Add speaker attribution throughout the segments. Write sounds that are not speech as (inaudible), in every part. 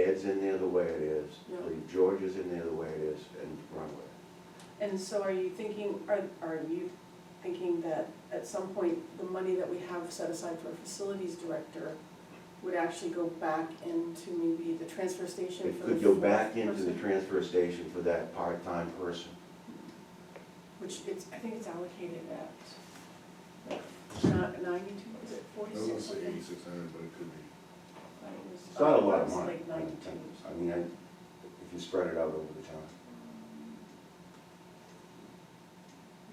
Speaker 1: is in there the way it is,
Speaker 2: Yeah.
Speaker 1: leave George's in there the way it is, and run with it.
Speaker 2: And so are you thinking, are, are you thinking that at some point, the money that we have set aside for a facilities director would actually go back into maybe the transfer station
Speaker 1: It
Speaker 2: for the
Speaker 1: could go
Speaker 2: fourth
Speaker 1: back into the
Speaker 2: person?
Speaker 1: transfer station for that part-time person.
Speaker 2: Which it's, I think it's allocated at, like, ninety-two, is it
Speaker 3: I was gonna
Speaker 2: forty-six?
Speaker 3: say
Speaker 2: something?
Speaker 3: eighty-six hundred, but it could be.
Speaker 2: Right, Oh, it was-
Speaker 1: It's not a lot of
Speaker 2: it's
Speaker 1: money.
Speaker 2: like
Speaker 1: I
Speaker 2: 92.
Speaker 1: I mean, I, if you spread it out over the time.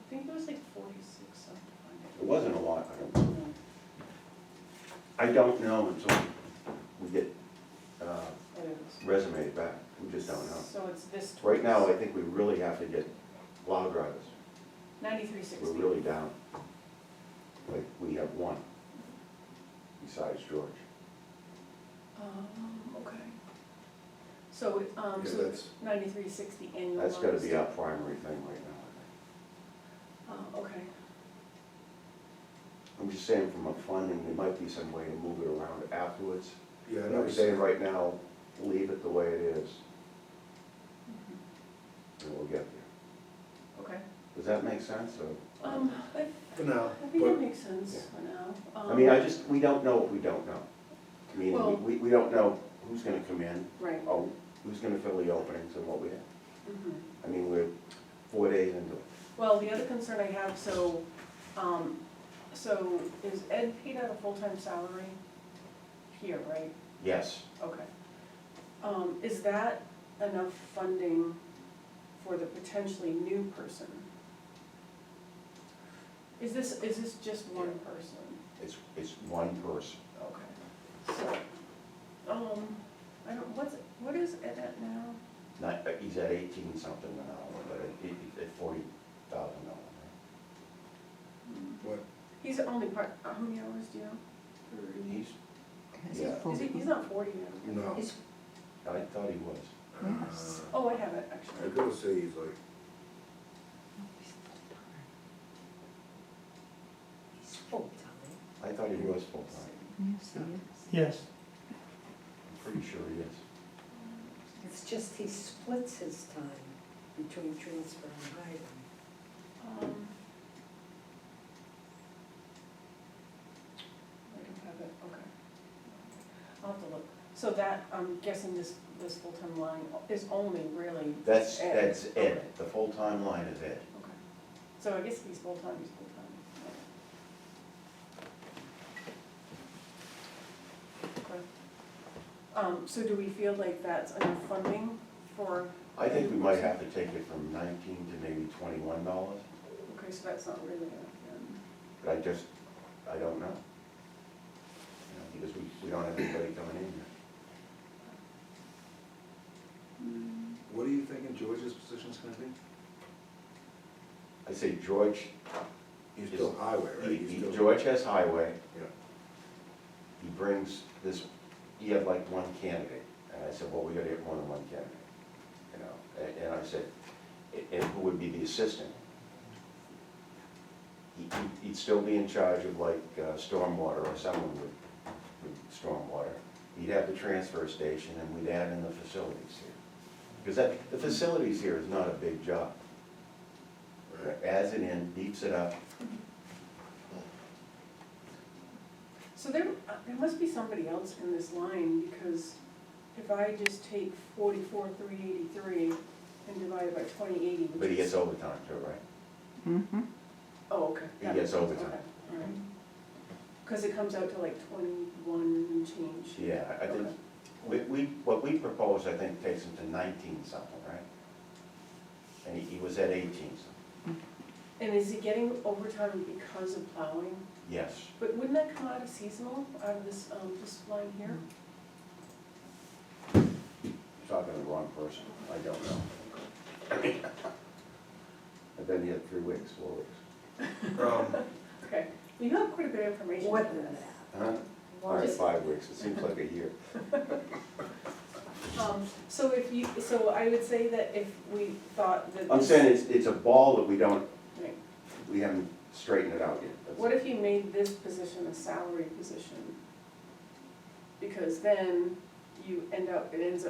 Speaker 2: I think it was like forty-six something.
Speaker 1: It wasn't a lot, I don't, I don't know until we get, uh, resume back, we just don't know.
Speaker 2: So it's this.
Speaker 1: Right now, I think we really have to get plow drivers,
Speaker 2: Ninety-three
Speaker 1: we're
Speaker 2: sixty.
Speaker 1: really down. Like, we have one besides George.
Speaker 2: Um, okay. So, um,
Speaker 3: Yeah,
Speaker 2: so
Speaker 3: that's-
Speaker 2: ninety-three sixty annual.
Speaker 1: That's gotta
Speaker 2: bonus.
Speaker 1: be our primary thing right now, I think.
Speaker 2: Oh, okay,
Speaker 1: I'm just saying from a funding, there might be some way to move it around afterwards.
Speaker 3: Yeah, I
Speaker 1: And
Speaker 3: know.
Speaker 1: I'm
Speaker 3: it's-
Speaker 1: saying right now, leave it the way it is, and we'll get there.
Speaker 2: Mm-hmm. okay.
Speaker 1: Does that make sense, or?
Speaker 2: Um, I,
Speaker 3: For now,
Speaker 2: I think that
Speaker 3: but
Speaker 2: makes sense for now.
Speaker 1: I mean, I
Speaker 2: Um,
Speaker 1: just, we don't know what we don't know. I
Speaker 2: Well-
Speaker 1: mean, we, we don't know who's gonna come in,
Speaker 2: Right.
Speaker 1: oh, who's gonna fill the openings and what we have.
Speaker 2: mhm.
Speaker 1: I mean, we're four days into it.
Speaker 2: Well, the other concern I have, so, um, so is Ed paid out a full-time salary here, right?
Speaker 1: Yes,
Speaker 2: Okay. Um, is that enough funding for the potentially new person? Is this, is this just one person?
Speaker 1: it's, it's one person.
Speaker 2: Okay. So, um, I don't, what's, what is Ed at now?
Speaker 1: Not, uh, he's at eighteen something an hour, but it, it, at forty thousand dollars.
Speaker 3: what,
Speaker 2: He's only part, how many hours do you know?
Speaker 1: He's,
Speaker 4: Is
Speaker 1: Yeah.
Speaker 4: it full?
Speaker 2: Is he, he's not forty now?
Speaker 3: no.
Speaker 4: It's-
Speaker 1: I thought he was.
Speaker 4: Yes.
Speaker 3: Uh,
Speaker 2: Oh, I have it,
Speaker 3: I
Speaker 2: actually.
Speaker 3: gotta say he's like,
Speaker 4: He's full-time.
Speaker 1: I thought he was full-time.
Speaker 4: Yes, he is.
Speaker 5: Yes,
Speaker 1: I'm pretty sure he is.
Speaker 4: It's just he splits his time between transfer and highway.
Speaker 2: Um, I don't have it, okay. I'll have to look. So that, I'm guessing this, this full-time line is only really,
Speaker 1: That's,
Speaker 2: Ed.
Speaker 1: that's Ed. The full-time line is Ed.
Speaker 2: okay. So I guess he's full-time, he's full-time. Okay. Um, so do we feel like that's enough funding for,
Speaker 1: I think we might have to take it from nineteen to maybe twenty-one dollars,
Speaker 2: okay, so that's not really um, enough
Speaker 1: but I just, I don't know. You know, Because we, we don't have anybody coming in here.
Speaker 2: then.
Speaker 3: what are you thinking George's position's gonna be?
Speaker 1: I say George,
Speaker 3: He's still highway, right?
Speaker 1: he-
Speaker 3: He's
Speaker 1: he-
Speaker 3: still-
Speaker 1: George has highway,
Speaker 3: Yeah,
Speaker 1: he brings this, he had like one candidate, and I said, well, we gotta get more than one candidate, you know, and, and I said, "A- and who would be the assistant? He, he'd- he'd still be in charge of like uh, stormwater, or someone would, with stormwater. He'd have the transfer station, and we'd add in the facilities here. Because that, the facilities here is not a big job,
Speaker 3: right.
Speaker 1: adds it in, beeps it up,
Speaker 2: So there, uh, there must be somebody else in this line, because if I just take forty-four, three eighty-three and divide it by twenty eighty, which is.
Speaker 1: but he gets overtime too, right?
Speaker 2: Oh, okay.
Speaker 1: he gets
Speaker 2: that makes sense,
Speaker 1: overtime.
Speaker 2: okay, all right. Cause it comes out to like twenty-one and change.
Speaker 1: Yeah, I- I think,
Speaker 2: Okay.
Speaker 1: we, we, what we proposed, I think, takes him to nineteen something, right? And he, he was at eighteen something,
Speaker 2: And is he getting overtime because of plowing?
Speaker 1: yes.
Speaker 2: But wouldn't that come out of seasonal, out of this, um, this line here?
Speaker 1: You're talking to the wrong person, I don't know. (laughs) And then he had three weeks, four weeks.
Speaker 3: Um,
Speaker 2: Okay, well, you have quite a bit of information.
Speaker 4: More
Speaker 2: on
Speaker 4: than
Speaker 2: this.
Speaker 4: that.
Speaker 1: Huh? All
Speaker 4: More
Speaker 1: right,
Speaker 4: than-
Speaker 1: five weeks, it seems like a (laughs) year.
Speaker 2: Um, so if you, so I would say that if we thought that this.
Speaker 1: I'm saying it's, it's a ball that we don't,
Speaker 2: Right.
Speaker 1: we haven't straightened it out yet. That's-
Speaker 2: What if you made this position a salary position? Because then you end up, it ends up